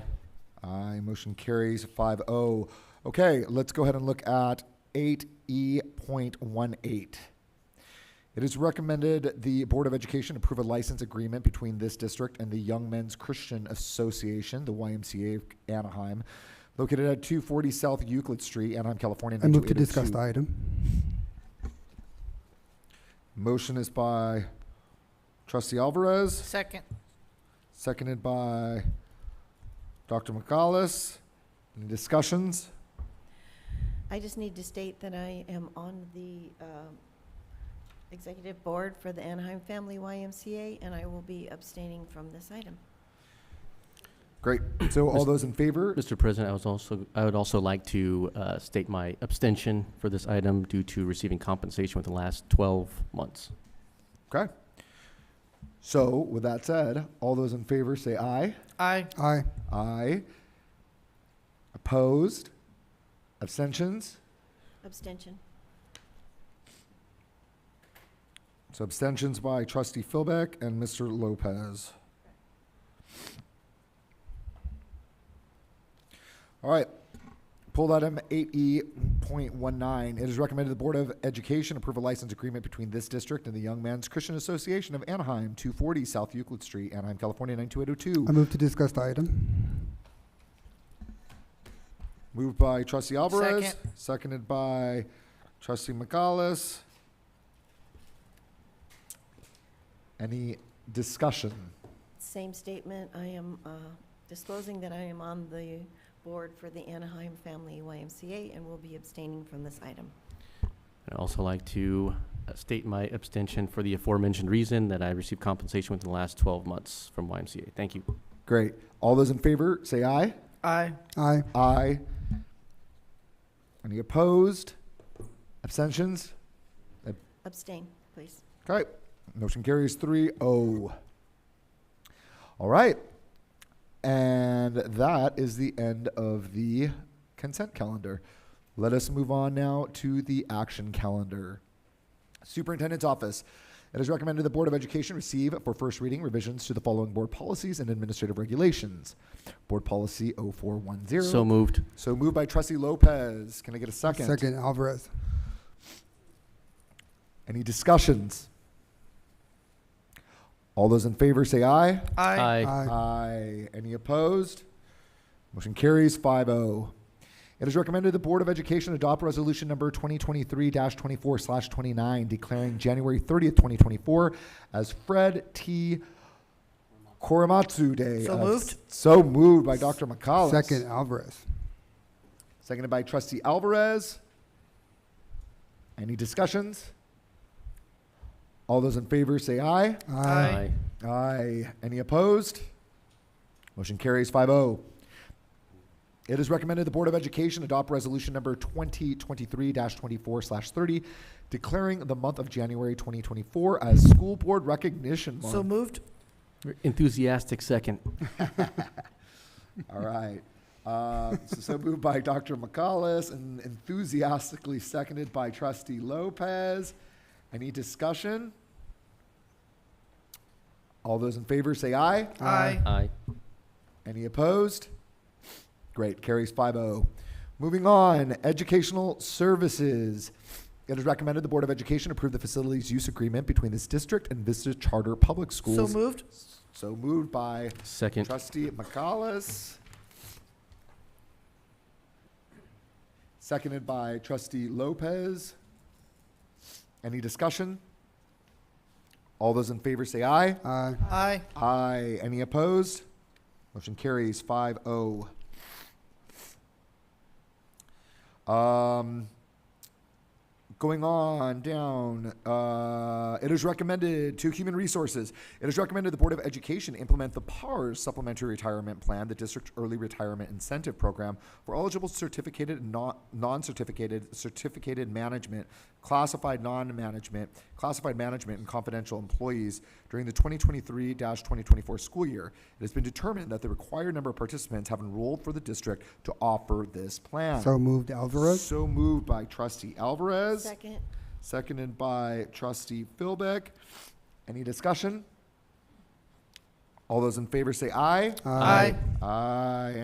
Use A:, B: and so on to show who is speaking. A: Motion carries 5-0. Okay, let's go ahead and look at eight E point one eight. It is recommended the Board of Education approve a license agreement between this district and the Young Men's Christian Association, the YMCA of Anaheim, located at two forty South Euclid Street, Anaheim, California.
B: I move to
A: 92802.
B: discuss the item.
A: Motion is by trustee Alvarez,
C: Second.
A: seconded by Dr. McCallus. Any discussions?
D: I just need to state that I am on the um, executive board for the Anaheim Family YMCA, and I will be abstaining from this item.
A: Great. So all those in favor?
E: Mr. President, I was also, I would also like to uh, state my abstention for this item due to receiving compensation within the last 12 months.
A: Okay. So with that said, all those in favor say aye.
C: Aye.
B: Aye.
A: Aye. Opposed? Abstentions?
D: Abstention.
A: So abstentions by trustee Philbeck and Mr. Lopez. All right, pull that M eight E point one nine. It is recommended the Board of Education approve a license agreement between this district and the Young Men's Christian Association of Anaheim, two forty South Euclid Street, Anaheim, California, nine two eight oh two.
B: I move to discuss the item.
A: Moved by trustee Alvarez,
C: Second.
A: seconded by trustee McCallus. Any discussion?
D: Same statement, I am uh, disclosing that I am on the board for the Anaheim Family YMCA and will be abstaining from this item.
E: I'd also like to uh, state my abstention for the aforementioned reason that I received compensation within the last 12 months from YMCA. Thank you.
A: Great. All those in favor, say aye.
C: Aye.
B: Aye.
A: Aye. Any opposed? Abstentions?
D: Abstain, please.
A: Okay. Motion carries 3-0. All right. And that is the end of the consent calendar. Let us move on now to the action calendar. Superintendent's Office. It is recommended the Board of Education receive for first reading revisions to the following board policies and administrative regulations. Board Policy 0410.
E: So moved.
A: So moved by Trustee Lopez. Can I get a second?
B: Second, Alvarez.
A: Any discussions? All those in favor say aye.
C: Aye.
A: Aye. Any opposed? Motion carries 5-0. It is recommended the Board of Education adopt resolution number twenty twenty-three twenty-four twenty-nine declaring January thirtieth, twenty twenty-four as Fred T. Korematsu Day.
C: So
A: of-
C: moved.
A: So moved by Dr. McCollum.
B: Second, Alvarez.
A: Seconded by trustee Alvarez. Any discussions? All those in favor say aye.
C: Aye.
A: Aye. Any opposed? Motion carries 5 0. It is recommended the Board of Education adopt resolution number 2023 24 30, declaring the month of January 2024 as School Board Recognition Month.
C: So moved.
E: Enthusiastic second.
A: All right. Uh, so, so moved by Dr. McCallus and enthusiastically seconded by Trustee Lopez. Any discussion? All those in favor say aye.
C: Aye.
E: Aye.
A: Any opposed? Great, carries 5-0. Moving on, Educational Services. It is recommended the Board of Education approve the facilities use agreement between this district and Vista Charter Public
C: So
A: Schools.
C: moved.
A: So moved by
E: Second.
A: trustee McCallus. Seconded by trustee Lopez. Any discussion? All those in favor say aye.
B: Aye.
C: Aye.
A: Aye. Any opposed? Motion carries oh. 5-0. Um, going on down, uh, it is recommended to Human Resources. It is recommended the Board of Education implement the PARS Supplementary Retirement Plan, the District Early Retirement Incentive Program for eligible certificated and non- non-certificated, certificated management, classified non-management, classified management, and confidential employees during the 2023-2024 school year. It has been determined that the required number of participants have enrolled for the district to offer this plan.
B: So moved, Alvarez.
A: So moved by trustee Alvarez,
D: Second,
A: seconded by trustee Philbeck. Any discussion? All those in favor say aye.
C: Aye.
A: Aye.